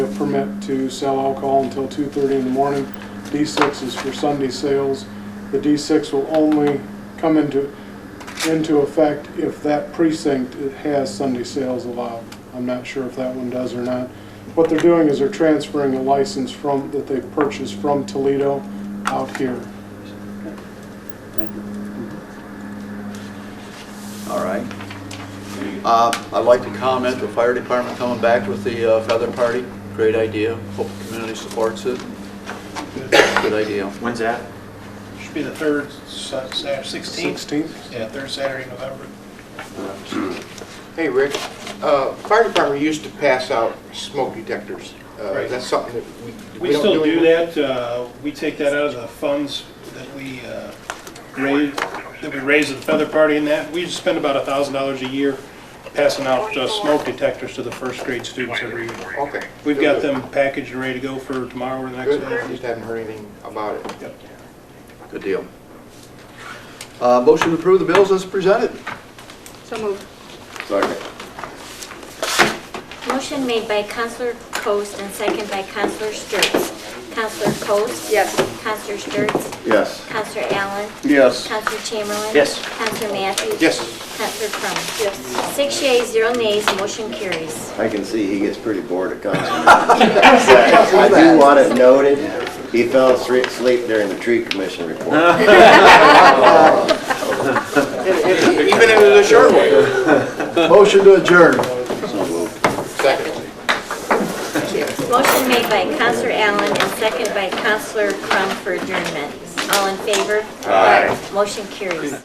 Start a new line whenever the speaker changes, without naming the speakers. permit to sell alcohol until 2:30 in the morning. D6 is for Sunday sales. The D6 will only come into, into effect if that precinct has Sunday sales allowed. I'm not sure if that one does or not. What they're doing is they're transferring a license from, that they purchased from Toledo out here.
Thank you. All right. Uh, I'd like to comment, the fire department coming back with the uh, feather party, great idea. Hope the community supports it. Good idea.
When's that?
Should be the third Sa- Saturday, 16th?
16th?
Yeah, third Saturday in November.
Hey, Rick, uh, fire department used to pass out smoke detectors. Uh,
Right.
That's something that we, we
We
don't do
still do
anymore.
that, uh, we take that out of the funds that we uh, raise, that we raise at the feather party and that. We spend about a thousand dollars a year passing out uh, smoke detectors to the first grade students every year.
Okay.
We've got them packaged and ready to go for tomorrow or the next
Good, I
day.
just hadn't heard anything about it.
Yep.
Good deal. Uh, Motion to approve the bills as presented.
So moved.
Motion made by Counselor Coast and second by Counselor Sturts. Counselor Coast?
Yes.
Counselor Sturts?
Yes.
Counselor Allen?
Yes.
Counselor Chamberlain?
Yes.
Counselor Matthews?
Yes.
Counselor Crum?
Yes.
Six yeas, zero nays, motion carries.
I can see he gets pretty bored at council. meetings. I do want it noted, he fell asleep asleep during the tree commission report.
Even if it was a short one.
Motion to adjourn.
Second.
Motion made by Counselor Allen and second by Counselor Crum for adjournment. All in favor? Aye. Motion carries.